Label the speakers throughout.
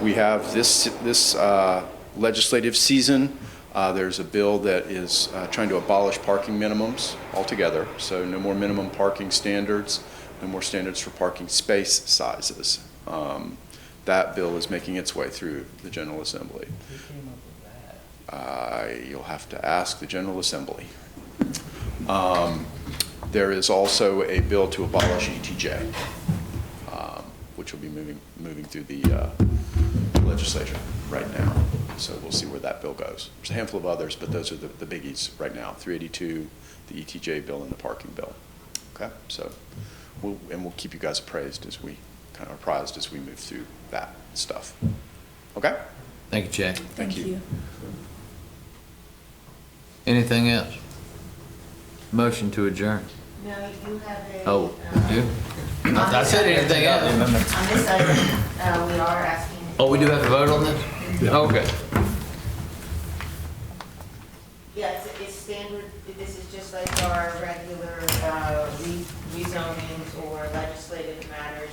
Speaker 1: We have this, this uh, legislative season, uh, there's a bill that is uh, trying to abolish parking minimums altogether. So no more minimum parking standards, no more standards for parking space sizes. Um, That bill is making its way through the General Assembly.
Speaker 2: Who came up with that?
Speaker 1: Uh, You'll have to ask the General Assembly. Um, There is also a bill to abolish ETJ, um, which will be moving, moving through the uh, legislature right now. So we'll see where that bill goes. There's a handful of others, but those are the the biggies right now, 382, the ETJ bill, and the parking bill. Okay, so, we'll- and we'll keep you guys appraised as we, kind of apprised as we move through that stuff. Okay?
Speaker 3: Thank you, Jack.
Speaker 1: Thank you.
Speaker 3: Anything else? Motion to adjourn.
Speaker 4: No, you have a.
Speaker 3: Oh,
Speaker 4: um,
Speaker 3: you? I said anything else?
Speaker 4: On this item, uh, we are asking.
Speaker 3: Oh, we do have to vote on this? Okay.
Speaker 4: Yeah, it's, it's standard, this is just like our regular, uh, re- rezonings or legislative matters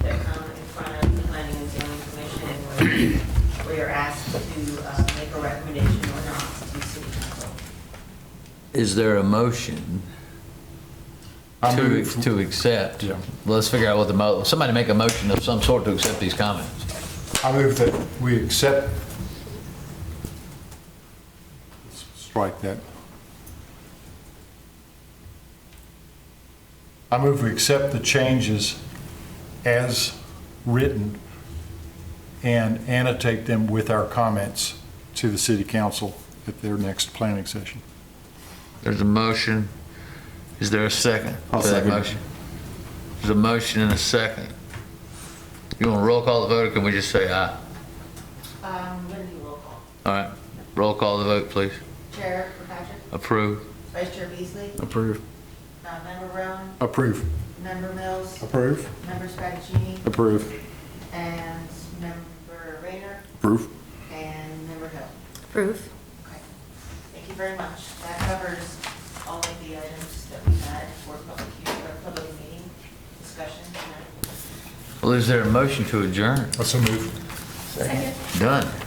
Speaker 4: that come in front of the planning and zoning commission where, where you're asked to, uh, make a recommendation or not to city council.
Speaker 3: Is there a motion
Speaker 5: I
Speaker 3: to,
Speaker 5: move-
Speaker 3: to accept?
Speaker 5: Yeah.
Speaker 3: Let's figure out what the mo, somebody make a motion of some sort to accept these comments.
Speaker 5: I move that we accept. Strike that. I move we accept the changes as written and annotate them with our comments to the city council at their next planning session.
Speaker 3: There's a motion. Is there a second?
Speaker 5: I'll
Speaker 3: to that
Speaker 5: second.
Speaker 3: motion? There's a motion and a second. You want to roll call the vote, or can we just say aye?
Speaker 4: Um, Lindy will call.
Speaker 3: All right, roll call the vote, please.
Speaker 4: Chair Kirkpatrick,
Speaker 3: Approve.
Speaker 4: Vice Chair Beasley,
Speaker 5: Approve.
Speaker 4: uh, Member Roan,
Speaker 5: Approve.
Speaker 4: Member Mills,
Speaker 5: Approve.
Speaker 4: Member Strategini,
Speaker 5: Approve.
Speaker 4: and Member Rayner,
Speaker 5: Approve.
Speaker 4: and Member Hill.
Speaker 6: Proof.
Speaker 4: Okay. Thank you very much. That covers all of the items that we had for public, hea- or public meeting discussion tonight.
Speaker 3: Well, is there a motion to adjourn?
Speaker 5: That's a move.
Speaker 3: Done.